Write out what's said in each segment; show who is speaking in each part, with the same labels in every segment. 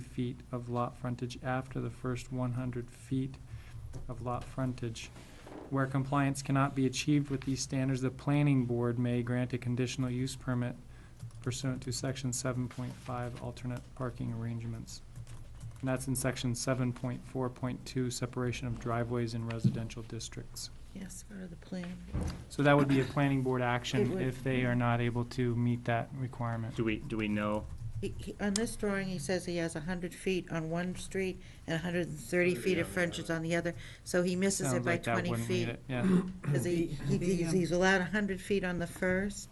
Speaker 1: feet of lot frontage after the first one hundred feet of lot frontage. Where compliance cannot be achieved with these standards, the planning board may grant a conditional use permit pursuant to section seven point five alternate parking arrangements. And that's in section seven point four point two, separation of driveways in residential districts.
Speaker 2: Yes, go to the plan.
Speaker 1: So that would be a planning board
Speaker 2: It
Speaker 1: action
Speaker 2: would.
Speaker 1: if they are not able to meet that requirement.
Speaker 3: Do we, do we know?
Speaker 2: He- he- On this drawing, he says he has 100 feet on one street and 130 feet of frontage on the other, so he misses it
Speaker 1: Sounds
Speaker 2: by
Speaker 1: like that
Speaker 2: 20
Speaker 1: wouldn't meet
Speaker 2: feet.
Speaker 1: it, yeah.
Speaker 2: Because he, he-
Speaker 4: The,
Speaker 2: he's
Speaker 4: um,
Speaker 2: he's allowed 100 feet on the first,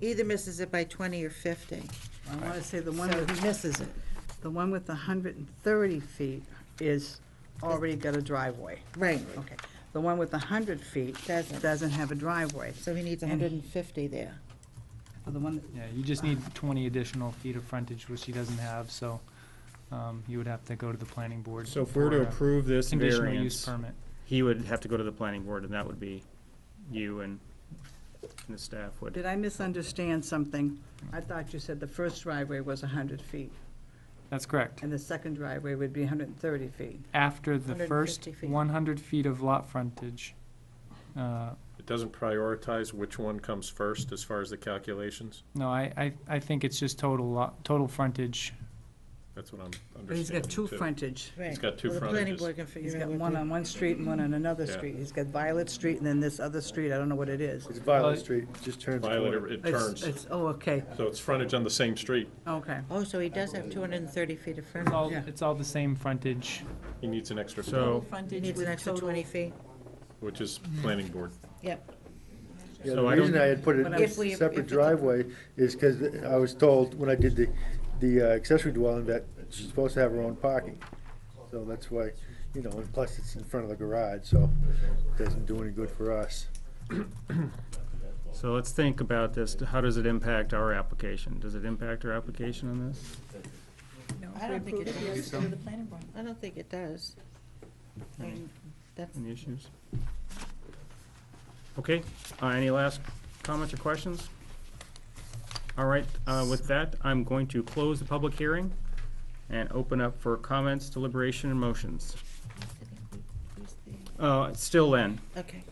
Speaker 2: either misses it by 20 or 50.
Speaker 4: I want to say the one
Speaker 2: So he
Speaker 4: with,
Speaker 2: misses it.
Speaker 4: the one with the hundred and thirty feet is already got a driveway.
Speaker 2: Right,
Speaker 4: Okay. The one with the hundred feet
Speaker 2: Doesn't.
Speaker 4: doesn't have a driveway.
Speaker 2: so he needs 150 there.
Speaker 4: So the one,
Speaker 1: Yeah, you just need twenty additional feet of frontage, which he doesn't have, so, um, you would have to go to the planning board.
Speaker 3: So if we were to
Speaker 1: for a
Speaker 3: approve this
Speaker 1: Conditional use
Speaker 3: variance,
Speaker 1: permit.
Speaker 3: he would have to go to the planning board, and that would be you and and the staff would.
Speaker 4: did I misunderstand something? I thought you said the first driveway was hundred feet,
Speaker 1: That's correct.
Speaker 4: and the second driveway would be hundred and thirty feet.
Speaker 1: After the
Speaker 2: 150
Speaker 1: first
Speaker 2: feet.
Speaker 1: one hundred feet of lot frontage, uh,
Speaker 5: It doesn't prioritize which one comes first as far as the calculations?
Speaker 1: no, I, I, I think it's just total lot, total frontage.
Speaker 5: That's what I'm understanding.
Speaker 4: But he's got two
Speaker 5: too.
Speaker 4: frontage.
Speaker 2: Right.
Speaker 5: got two
Speaker 2: Well, The planning
Speaker 5: frontages.
Speaker 2: board can
Speaker 4: He's
Speaker 2: figure
Speaker 4: got
Speaker 2: out
Speaker 4: one
Speaker 2: what
Speaker 4: on one street and one on another
Speaker 5: Yeah.
Speaker 4: street. He's got Violet Street and then this other street, I don't know what it is.
Speaker 6: It's
Speaker 1: Well,
Speaker 6: Violet Street, it just turns
Speaker 5: Violator,
Speaker 6: corner.
Speaker 5: it
Speaker 4: It's-
Speaker 5: turns,
Speaker 4: It's, oh, okay,
Speaker 5: so it's frontage on the same street.
Speaker 4: okay.
Speaker 2: the- oh, so he does have 230 feet of
Speaker 1: It's all,
Speaker 2: frontage.
Speaker 4: Yeah.
Speaker 1: it's all the same frontage.
Speaker 5: He needs an extra,
Speaker 3: So,
Speaker 2: He
Speaker 7: frontage
Speaker 2: needs an extra 20 feet.
Speaker 5: which is planning board.
Speaker 2: Yep,
Speaker 6: Yeah, the
Speaker 3: So I don't-
Speaker 6: reason I had put it in
Speaker 4: When I
Speaker 6: a
Speaker 2: was- If we- if
Speaker 6: separate
Speaker 2: it's a-
Speaker 6: driveway is because I was told when I did the, the uh, accessory dwelling that she's supposed to have her own parking. So that's why, you know, and plus it's in front of the garage, so it doesn't do any good for us.
Speaker 3: so let's think about this. How does it impact our application? Does it impact our application on this?
Speaker 2: I don't think it does.
Speaker 7: goes to the planning board.
Speaker 2: I don't think it does. I mean, that's,
Speaker 3: Any issues? Okay, uh, any last comments or questions? All right, uh, with that, I'm going to close the public hearing and open up for comments, deliberation, and motions. Uh, Still Len,
Speaker 2: okay.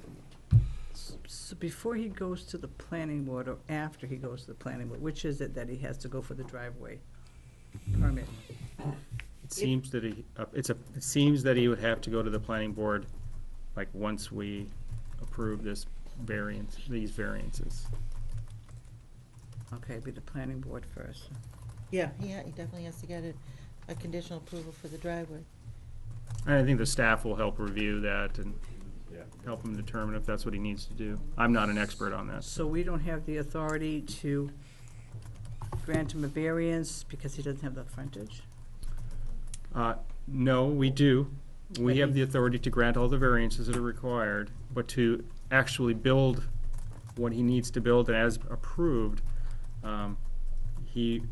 Speaker 4: So before he goes to the planning board, or after he goes to the planning board, which is it that he has to go for the driveway permit?
Speaker 3: it seems that he, uh, it's a, it seems that he would have to go to the planning board, like, once we approve this variance, these variances.
Speaker 4: Okay, be the planning board first.
Speaker 2: Yeah, he, ha- he definitely has to get a, a conditional approval for the driveway.
Speaker 3: And I think the staff will help review that and
Speaker 5: Yeah.
Speaker 3: help him determine if that's what he needs to do. I'm not an expert on that.
Speaker 4: So we don't have the authority to grant him a variance because he doesn't have the frontage?
Speaker 3: Uh, No, we do.
Speaker 4: But
Speaker 3: We have
Speaker 4: he-
Speaker 3: the authority to grant all the variances that are required, but to actually build what he needs to build as approved, um, he,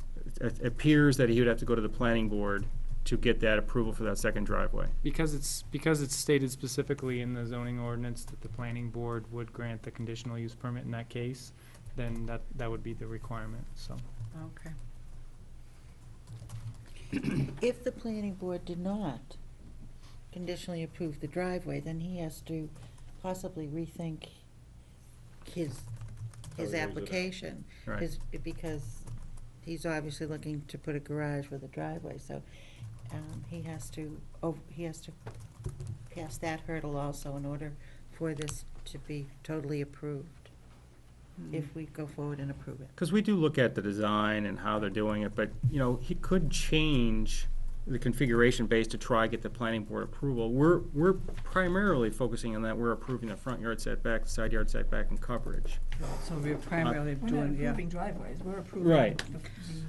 Speaker 3: it appears that he would have to go to the planning board to get that approval for that second driveway.
Speaker 1: Because it's, because it's stated specifically in the zoning ordinance that the planning board would grant the conditional use permit in that case, then that, that would be the requirement, so.
Speaker 4: Okay.
Speaker 2: If the planning board did not conditionally approve the driveway, then he has to possibly rethink his,
Speaker 5: How he lays
Speaker 2: his
Speaker 5: it out.
Speaker 2: application.
Speaker 3: Right.
Speaker 2: His- Because he's obviously looking to put a garage with a driveway, so, um, he has to, oh, he has to pass that hurdle also in order for this to be totally approved, if we go forward and approve it.
Speaker 3: Because we do look at the design and how they're doing it, but, you know, he could change the configuration base to try get the planning board approval. We're, we're primarily focusing on that, we're approving the front yard setback, the side yard setback, and coverage.
Speaker 4: So we're primarily
Speaker 7: We're not
Speaker 4: doing, yeah.
Speaker 7: approving driveways, we're approving.
Speaker 3: Right.
Speaker 7: the-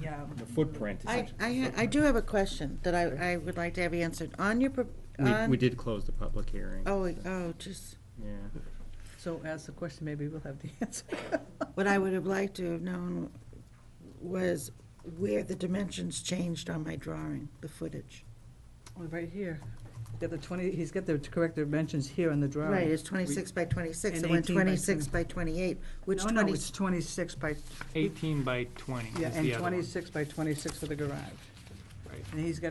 Speaker 7: The, um,
Speaker 3: The footprint.
Speaker 2: I, I, ha- I do have a question that I, I would like to have answered. On your, pro-
Speaker 3: We,
Speaker 2: on.
Speaker 3: we did close the public hearing.
Speaker 2: um, Oh, oh, just,
Speaker 3: Yeah.
Speaker 4: So ask the question, maybe we'll have the answer.
Speaker 2: what I would have liked to have known was where the dimensions changed on my drawing, the footage.
Speaker 4: Oh, Right here. Got the twenty, he's got the correct dimensions here on the drawing.
Speaker 2: Right, it's twenty-six by twenty-six,
Speaker 4: And
Speaker 2: it went
Speaker 4: 18 by
Speaker 2: twenty-six by twenty-eight, which
Speaker 4: No, no,
Speaker 2: twenty,
Speaker 4: it's twenty-six by
Speaker 1: Eighteen by twenty is the
Speaker 4: Yeah,
Speaker 1: other one.
Speaker 4: and twenty-six by twenty-six for the garage.
Speaker 1: Right.
Speaker 4: And he's got